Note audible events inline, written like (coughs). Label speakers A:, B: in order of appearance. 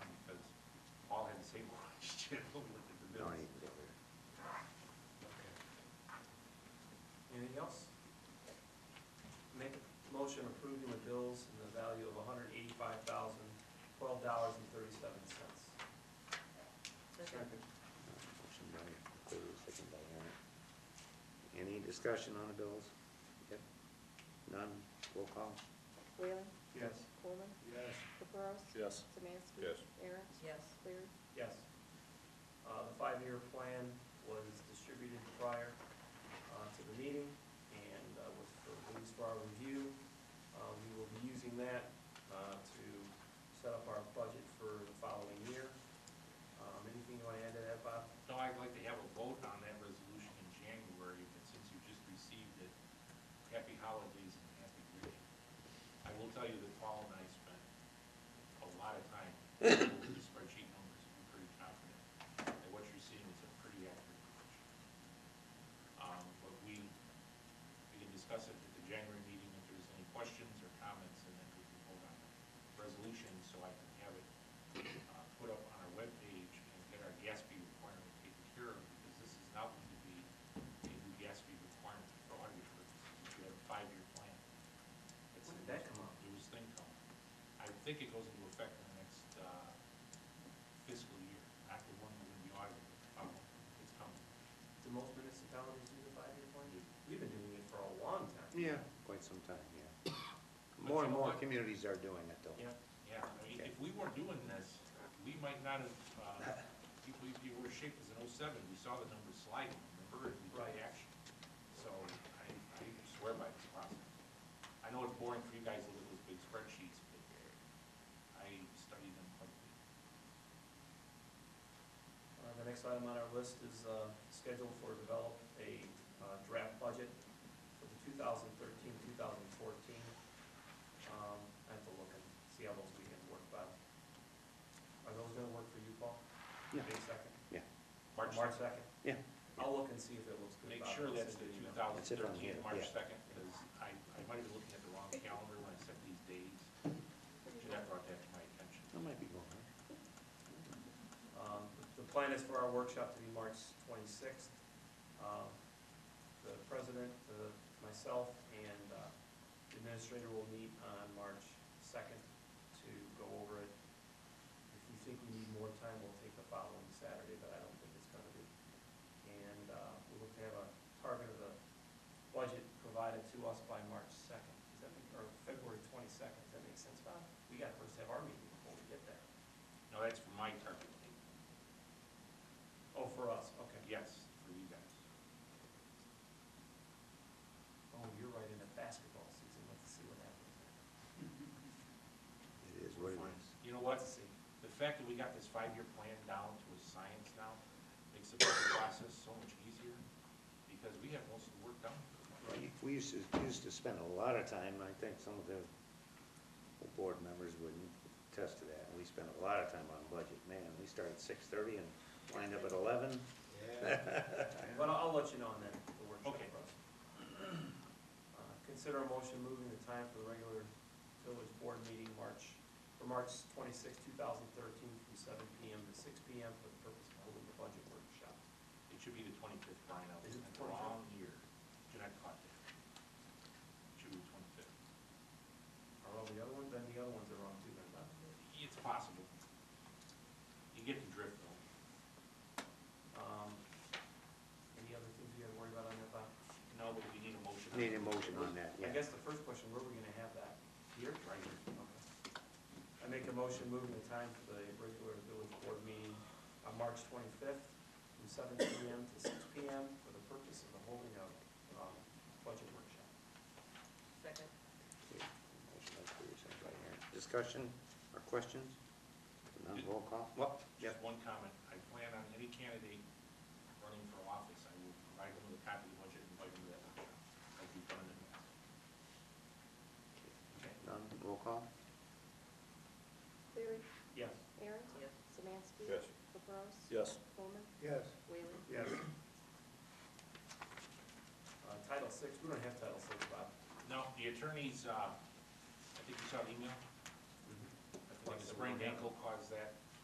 A: (laughs)
B: general, look at the
C: No,
B: bills.
C: he can go there.
A: Okay. Anything else? Make a motion approving the bills in the value of hundred eighty-five thousand, twelve dollars and thirty-seven cents.
C: Motion by Cleary, second by Emmett. Any discussion on the bills? Yep. None, roll call.
D: Whalen?
A: Yes.
D: Coleman?
B: Yes.
D: Caprows?
E: Yes.
D: Samansky?
E: Yes.
D: Aaron?
F: Yes.
D: Cleary?
A: Yes. Uh, the five-year plan was distributed prior, uh, to the meeting and, uh, was for release for our review. Uh, we will be using that, uh, to set up our budget for the following year. Um, anything you wanna add to that, Bob?
B: No, I'd like to have a vote on that resolution in January, and since you just received it, happy holidays and happy greeting. I will tell you that Paul and I spent a lot of time (coughs) going over the spreadsheet numbers, I'm pretty confident that what you're seeing is a pretty accurate picture. Um, but we, we can discuss it at the January meeting if there's any questions or comments, and then we can vote on the resolution, so I can have it uh, put up on our webpage and get our GASP requirement taken care of, because this is now going to be a new GASP requirement for auditor purposes. We have a five-year plan. It's
A: When
B: a
A: did that come out?
B: It was thing come. I think it goes into effect in the next uh, fiscal year, not the one we're going to be auditing. Um, It's coming.
A: Do most municipalities do the five-year plan? We've been doing it for a long time.
C: Yeah. Quite some time, yeah. More and more communities are doing it though.
A: Yeah.
B: Yeah, I mean, if we were doing this, we might not have, uh, if we, if you were shaped as an oh-seven, we saw the numbers sliding, remember, and we took
A: Right.
B: action. So I, I swear by this process. I know it's boring for you guys to look at those big spreadsheets, but I studied them quite a bit.
A: Uh, The next item on our list is uh, schedule for develop a uh, draft budget for the 2013, 2014. Um, I have to look and see how those weekends work, but are those gonna work for you, Paul?
C: Yeah.
A: May second?
B: March,
A: March second?
C: Yeah.
A: I'll look and see if it looks good.
B: make
A: Bob.
B: sure that's the
A: Send you
B: two
A: an email.
B: thousand
C: It's it on here,
B: thirteen, March
C: yeah.
B: second, because I, I might have been looking at the wrong calendar when I set these days. Jeanette brought that to my attention.
C: That might be going, huh?
A: Um, The plan is for our workshop to be March 26th. Um, The president, the- myself, and uh, the administrator will meet on March 2nd to go over it. If we think we need more time, we'll take the following Saturday, but I don't think it's going to be. And uh, we'll look to have a target of the budget provided to us by March 2nd, Does that make- or February 22nd. Does that make sense, Bob? We got to first have our meeting before we get there.
B: No, that's for my target date.
A: Oh, for us, okay.
B: Yes, for you guys.
A: Oh, you're right in the basketball season, let's see what happens.
C: It is what it is.
B: You know what?
A: Let's see.
B: The fact that we got this five-year plan down to a science now makes the budget process so much easier because we have most of the work done.
C: We- We used to, used to spend a lot of time, I think some of the board members would attest to that. We spent a lot of time on budget, man. We started six thirty and lined up at eleven.
A: But I'll, I'll let you know on that, the workshop
B: Okay.
A: process. (clears throat) Uh, Consider a motion moving the time for the regular village board meeting March, for March twenty-sixth, two thousand thirteen, from seven PM to six PM for the purpose of holding the budget workshop.
B: It should be the twenty-fifth, Brian, I was
A: Is it
B: in the
A: the 25th?
B: wrong year. Jeanette caught that. It should be the twenty-fifth.
A: Are all the other ones, then the other ones are wrong too, then, Bob.
B: It's possible. You get the drift though.
A: Um, Any other things you gotta worry about on that, Bob?
B: No, but we need a motion.
C: Need a motion on that,
A: I
C: yeah.
A: guess the first question, where are we gonna have that?
B: Here, right here.
A: Okay. I make a motion moving the time for the regular village board meeting on March twenty-fifth from seven PM to six PM for the purpose of the holding of, um, budget workshop.
F: Second.
C: Motion by Cleary, second by Aaron. Discussion or questions? None, roll call? Well,
B: Just one comment, I plan on any candidate running for office, I will provide them with a copy of the budget and invite them to that workshop, like we've done in the past. Okay,
C: none, roll call?
D: Cleary?
A: Yes.
D: Aaron?
F: Yes.
D: Samansky?
E: Yes.
D: Caprows?
E: Yes.
D: Coleman?
C: Yes.
D: Whalen?
A: Yes. Uh, Title Six, we don't have Title Six, Bob.
B: now, the Mm-hmm. attorneys, uh, I think you saw the email, I think the sprained ankle caused that,